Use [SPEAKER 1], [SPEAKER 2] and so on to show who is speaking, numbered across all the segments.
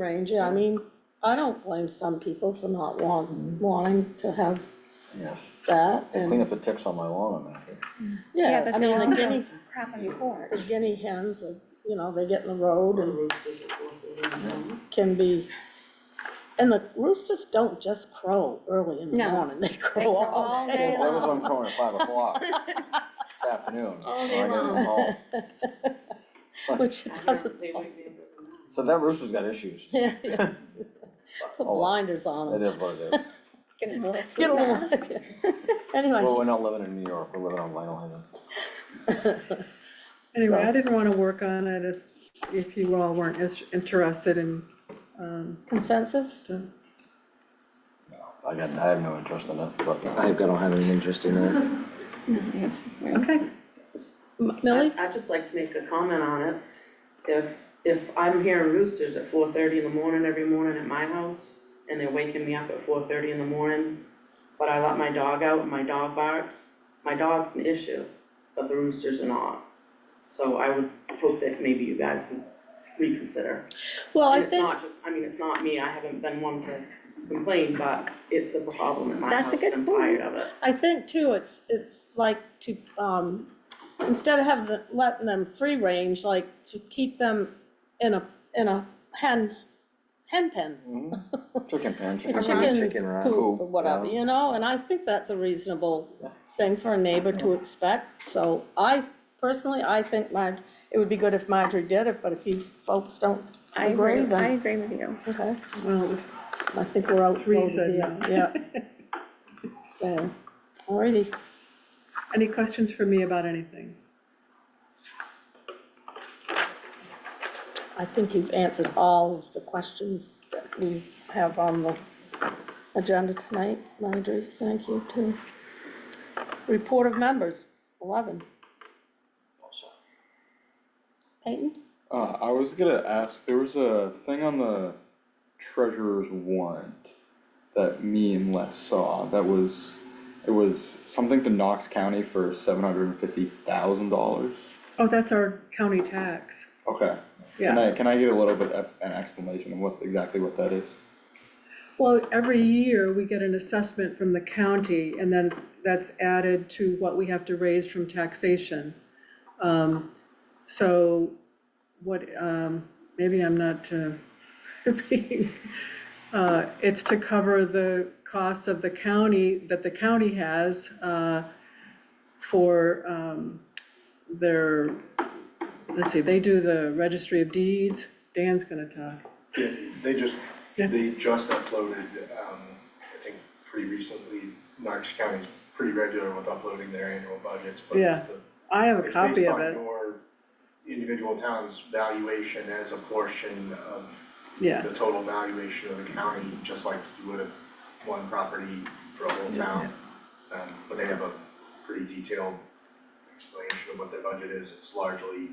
[SPEAKER 1] range, yeah, I mean, I don't blame some people for not want, wanting to have
[SPEAKER 2] Yeah,
[SPEAKER 1] that,
[SPEAKER 2] clean
[SPEAKER 1] and,
[SPEAKER 2] up the ticks on my lawn and that.
[SPEAKER 3] Yeah,
[SPEAKER 1] yeah, I
[SPEAKER 3] but
[SPEAKER 1] mean,
[SPEAKER 3] they're
[SPEAKER 1] the
[SPEAKER 3] also
[SPEAKER 1] guinea,
[SPEAKER 3] crap on your porch.
[SPEAKER 1] the guinea hens, are, you know, they get in the road and can be, and the roosters don't just crow early in the
[SPEAKER 3] No,
[SPEAKER 1] morning, they
[SPEAKER 3] crow
[SPEAKER 1] crow all
[SPEAKER 3] all
[SPEAKER 1] day
[SPEAKER 3] day
[SPEAKER 2] Well, I was
[SPEAKER 1] long.
[SPEAKER 2] on corner at five o'clock this afternoon.
[SPEAKER 3] All
[SPEAKER 2] when I
[SPEAKER 3] day
[SPEAKER 2] got
[SPEAKER 3] long.
[SPEAKER 2] them home.
[SPEAKER 1] Which it doesn't,
[SPEAKER 2] So that rooster's got issues. It
[SPEAKER 1] yeah, yeah. put
[SPEAKER 2] Oh, well.
[SPEAKER 1] blinders on them,
[SPEAKER 2] is what it is.
[SPEAKER 3] Get a little
[SPEAKER 1] get a little,
[SPEAKER 3] sleep
[SPEAKER 1] anyway.
[SPEAKER 2] Well, we're not living in New York, we're living on Long Island.
[SPEAKER 4] Anyway,
[SPEAKER 1] So-
[SPEAKER 4] I didn't wanna work on it if, if you all weren't as interested in, um,
[SPEAKER 1] Consensus?
[SPEAKER 2] I got, I have no interest in it, but
[SPEAKER 5] I don't have any interest in that.
[SPEAKER 3] Yes.
[SPEAKER 4] okay.
[SPEAKER 1] M- Millie?
[SPEAKER 6] I'd just like to make a comment on it. If, if I'm hearing roosters at four thirty in the morning every morning at my house, and they're waking me up at four thirty in the morning, but I let my dog out and my dog barks, my dog's an issue, but the roosters are not. So I would hope that maybe you guys can reconsider.
[SPEAKER 1] Well, I
[SPEAKER 6] And it's
[SPEAKER 1] think,
[SPEAKER 6] not just, I mean, it's not me, I haven't been one to complain, but it's a problem in my
[SPEAKER 3] That's
[SPEAKER 6] house
[SPEAKER 3] a
[SPEAKER 6] and
[SPEAKER 3] good
[SPEAKER 6] I'm tired of it.
[SPEAKER 1] I think too, it's, it's like to, um, instead of have the, letting them free range, like to keep them in a, in a hen, hen pen.
[SPEAKER 2] chicken pen, chicken
[SPEAKER 5] Chicken
[SPEAKER 1] Chicken
[SPEAKER 5] run.
[SPEAKER 1] coop or
[SPEAKER 2] Coop,
[SPEAKER 1] whatever,
[SPEAKER 2] yeah.
[SPEAKER 1] you know, and I think that's a reasonable thing for a neighbor to expect. So I, personally, I think my, it would be good if Marjorie did it, but if you folks don't
[SPEAKER 3] I agree,
[SPEAKER 1] agree,
[SPEAKER 3] I
[SPEAKER 1] then,
[SPEAKER 3] agree with you.
[SPEAKER 1] okay.
[SPEAKER 4] Well, it was
[SPEAKER 1] I think we're out
[SPEAKER 4] three
[SPEAKER 1] over
[SPEAKER 4] said
[SPEAKER 1] here,
[SPEAKER 4] no.
[SPEAKER 1] yeah. So, alrighty.
[SPEAKER 4] Any questions for me about anything?
[SPEAKER 1] I think you've answered all of the questions that we have on the agenda tonight, Marjorie, thank you too. Report of members, eleven. Peyton?
[SPEAKER 7] Uh, I was gonna ask, there was a thing on the treasurer's warrant that me and Les saw that was, it was something to Knox County for seven hundred and fifty thousand dollars.
[SPEAKER 4] Oh, that's our county tax,
[SPEAKER 7] Okay, can
[SPEAKER 4] yeah.
[SPEAKER 7] I, can I get a little bit of an explanation of what, exactly what that is?
[SPEAKER 4] Well, every year, we get an assessment from the county, and then that's added to what we have to raise from taxation. Um, So, what, um, maybe I'm not uh, being, uh, it's to cover the cost of the county, that the county has uh, for um, their, let's see, they do the registry of deeds, Dan's gonna talk.
[SPEAKER 8] Yeah, they just,
[SPEAKER 4] Yeah.
[SPEAKER 8] they just uploaded, um, I think pretty recently, Knox County's pretty regular with uploading their annual budgets, but
[SPEAKER 4] Yeah,
[SPEAKER 8] it's the.
[SPEAKER 4] I have a
[SPEAKER 8] it's
[SPEAKER 4] copy
[SPEAKER 8] based
[SPEAKER 4] of
[SPEAKER 8] on
[SPEAKER 4] it,
[SPEAKER 8] your individual town's valuation as a portion of
[SPEAKER 4] yeah.
[SPEAKER 8] the total valuation of the county, just like you would have one property for a whole town. Um, but they have a pretty detailed explanation of what their budget is, it's largely,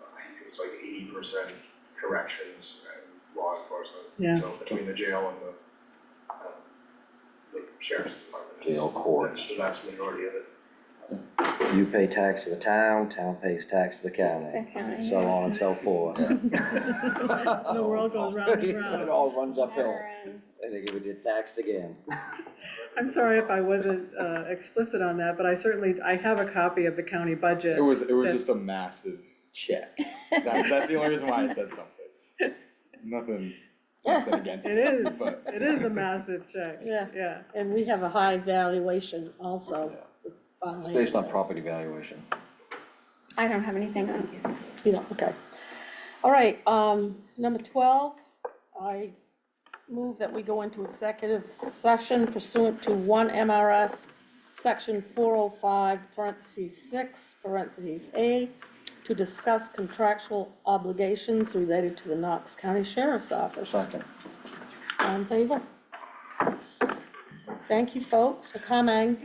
[SPEAKER 8] I think it's like eighty percent corrections and law enforcement.
[SPEAKER 4] Yeah.
[SPEAKER 8] So between the jail and the, um, the sheriff's department. it's-
[SPEAKER 2] Jail, courts.
[SPEAKER 8] That's the vast majority of it.
[SPEAKER 5] You pay tax to the town, town pays tax to the
[SPEAKER 3] The
[SPEAKER 5] county,
[SPEAKER 3] county,
[SPEAKER 5] so on and so forth.
[SPEAKER 4] The world goes round and round.
[SPEAKER 5] It all runs uphill.
[SPEAKER 3] Never ends.
[SPEAKER 5] And they give it get taxed again.
[SPEAKER 4] I'm sorry if I wasn't uh, explicit on that, but I certainly, I have a copy of the county budget.
[SPEAKER 7] It was, it was
[SPEAKER 4] That-
[SPEAKER 7] just a massive check. That's, that's the only reason why I said something. Nothing, nothing against
[SPEAKER 4] It
[SPEAKER 7] it.
[SPEAKER 4] is,
[SPEAKER 7] but-
[SPEAKER 4] it is a massive check,
[SPEAKER 1] Yeah.
[SPEAKER 4] yeah.
[SPEAKER 1] And we have a high valuation also.
[SPEAKER 2] It's based on property valuation.
[SPEAKER 3] I don't have anything on
[SPEAKER 1] You know, okay. All right, um, number twelve, I move that we go into executive session pursuant to one MRS, section four oh five, parentheses six, parentheses A, to discuss contractual obligations related to the Knox County Sheriff's Office.
[SPEAKER 2] Second.
[SPEAKER 1] All in favor? Thank you, folks, for coming.